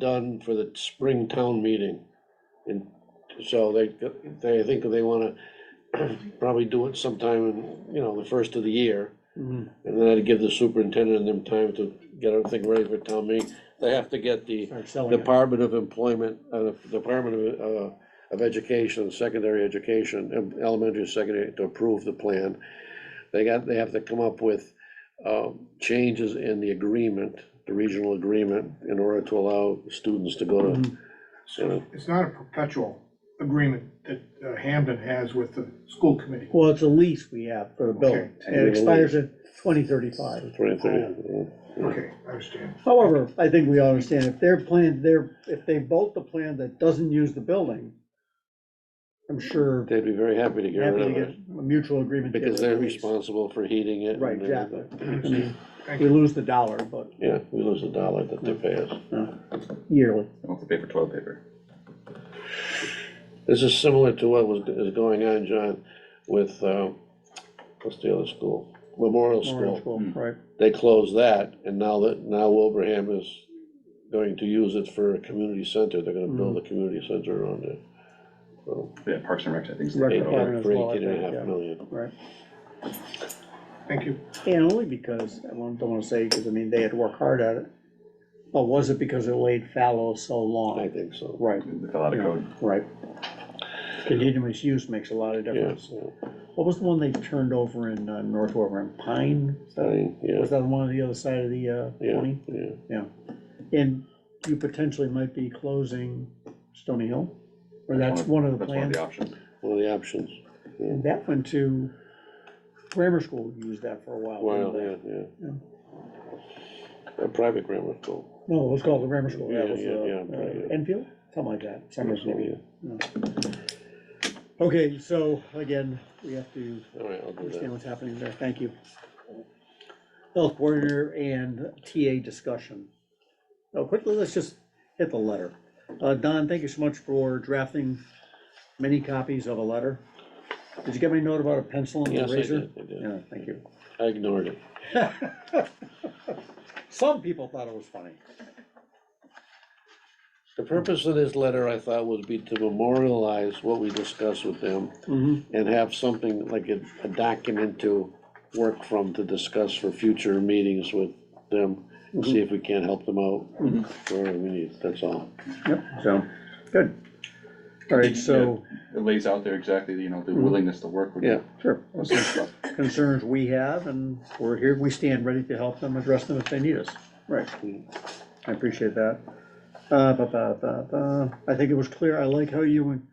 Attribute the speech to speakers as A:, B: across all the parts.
A: done for the spring town meeting. And so they, they, I think they wanna probably do it sometime in, you know, the first of the year.
B: Mhm.
A: And then I'd give the superintendent and them time to get everything ready for town meeting. They have to get the
B: Start selling it.
A: Department of Employment, uh, Department of, uh, of Education, Secondary Education, em- Elementary, and Secondary, to approve the plan. They got, they have to come up with, uh, changes in the agreement, the regional agreement, in order to allow students to go to,
B: Mhm.
A: you know,
C: It's not a perpetual agreement that uh, Hamden has with the school committee.
B: Well, it's a lease we have for the building,
C: Okay.
B: and it expires in twenty thirty-five.
A: twenty thirty.
C: Okay, I understand.
B: However, I think we all understand, if their plan, their, if they vote the plan that doesn't use the building, I'm sure
A: They'd be very happy to get
B: happy to
A: rid
B: get
A: of it,
B: a mutual agreement. to get
A: because they're
B: rid of the lease.
A: responsible for heating it.
B: Right,
A: and everything.
B: exactly. I
C: Understand.
B: mean, We lose the dollar, but
A: Yeah, we lose a dollar that they pay us.
B: yearly.
D: I want the paper toilet paper.
A: This is similar to what was, is going on, John, with, uh, what's the other school? Memorial
B: Memorial
A: School.
B: School, Right,
A: They closed that, and now that, now Wilbraham is going to use it for a community center. They're gonna
B: Mm.
A: build a community center around it. So,
D: Yeah, Parks and Rec, I think. is the
B: Rec
D: paper toilet
B: department. as
A: For
B: well, I
A: eighteen and a
B: think,
A: half
B: yeah.
A: million.
B: right.
C: Thank you.
B: And only because, I won't- don't wanna say, because I mean, they had to work hard at it, but was it because it laid fallow so
A: I
B: long?
A: think so.
B: Right.
D: paper. They fell out of code.
B: Right. Continuous use makes a lot of difference.
A: Yeah,
B: What was the one they turned over in uh, North Warren, Pine? Is that-
A: Fine, yeah,
B: Was that the one on the other side of the uh,
A: yeah,
B: twenty?
A: yeah.
B: And you potentially might be closing Stony Hill, or that's one of the
D: That's one of
B: plans.
D: the options.
A: One of the options.
B: And that went to grammar school, used that for a while.
A: Wow,
B: didn't
A: yeah, yeah. A private grammar school.
B: they? No, it was called the grammar school, that
A: Yeah,
B: was
A: yeah, yeah,
B: uh,
A: right,
B: uh,
A: yeah.
B: Enfield, something like that, Summers maybe.
A: Yeah.
B: Okay, so again, we have to
A: All right, I'll do that.
B: understand what's happening there, thank you. Health coordinator and TA discussion. Oh, quickly, let's just hit the letter. Uh, Don, thank you so much for drafting many copies of a letter. Did you get my note about a pencil and
A: Yes,
B: a
A: I
B: razor?
A: did, I did.
B: Yeah, thank you.
A: I ignored it.
B: Some people thought it was funny.
A: The purpose of this letter, I thought, would be to memorialize what we discussed with them
B: Mm-hmm.
A: and have something like a, a document to work from to discuss for future meetings with them,
B: Mm-hmm.
A: see if we can't help them out
B: Mhm.
A: wherever we need, that's all.
B: Yep, so, good. All right, so,
D: It lays out there exactly, you know, the
B: Mhm.
D: willingness to work with.
A: Yeah.
B: sure,
D: those sort of stuff.
B: concerns we have, and we're here, we stand ready to help them, address them if they need us. Right. I appreciate that. Uh, ba, ba, ba, ba. I think it was clear, I like how you, and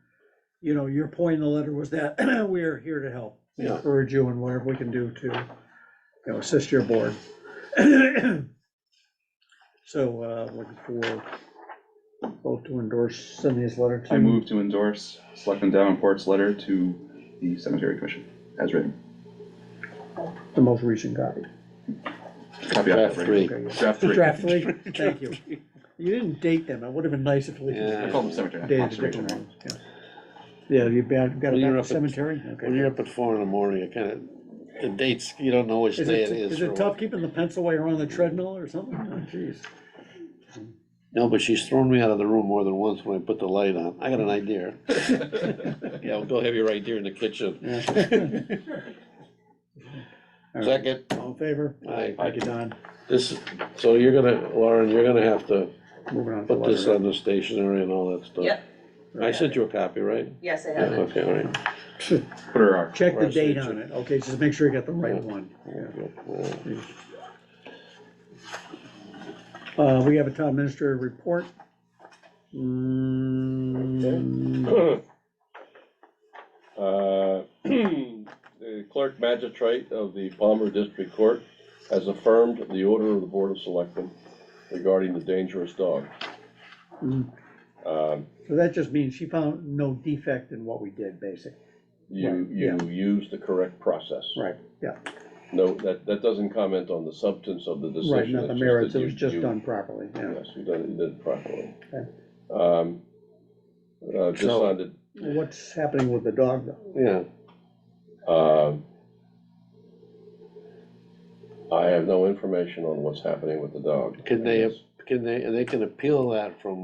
B: you know, your point in the letter was that we are here to help.
A: Yeah.
B: Encourage you in whatever we can do to, you know, assist your board. So, uh, looking for vote to endorse, send this letter to.
D: I move to endorse Selectman Davenport's letter to the cemetery commission as written.
B: The most recent copy.
D: Copy out
A: Draft
D: that,
A: three.
D: right? Draft three.
B: Draft three, thank you. You didn't date them, it would have been nice if we.
A: Yeah.
D: I call them cemetery,
B: Dated
D: not
B: a different
D: conservation.
B: ones, yeah. Yeah, you got, got
A: When
B: it
A: you're
B: back
A: up
B: at
A: at-
B: cemetery? Okay.
A: When you're up at four in the morning, it kinda, the dates, you don't know which
B: Is
A: day
B: it,
A: it is.
B: is
A: for
B: it
A: a
B: tough
A: while.
B: keeping the pencil while you're on the treadmill or something? Oh, Jeez.
A: No, but she's thrown me out of the room more than once when I put the light on, I got an
B: Mm-hmm.
A: idea. Yeah, I'll go have your idea in the kitchen.
B: Yeah. All right.
A: Second,
B: All in favor?
A: Aye.
B: Thank you, Don.
A: this, so you're gonna, Lauren, you're gonna have to
B: Moving on to
A: Put this
B: letter.
A: on the stationery and all that stuff.
E: Yep.
A: I sent you a copy, right?
E: Yes, I
A: Yeah,
E: have it.
A: okay, all right.
D: Put her our,
B: Check the
A: Where's the-
B: date on it, okay, just make sure you got the right one. Yeah.
A: Yeah.
B: Uh, we have a town administrator report. Mm,
F: Uh, The clerk magistrate of the Palmer District Court has affirmed the order of the Board of Selectmen regarding the dangerous dog.
B: Mm.
F: Um,
B: So that just means she found no defect in what we did, basically.
F: You,
B: Right,
F: you use the correct process.
B: Right. Yeah,
F: No, that, that doesn't comment on the substance of the decision.
B: right, not the
F: it's just
B: merits,
F: that
B: it
F: you-
B: was just
F: you-
B: done properly, yeah.
F: Yes, you did it you did it properly.
B: Okay.
F: Um, uh, Just
A: So-
F: on the
B: What's happening with the dog, though?
A: Yeah,
F: Um, I have no information on what's happening with the dog.
A: Could they have- can they, and they can appeal that from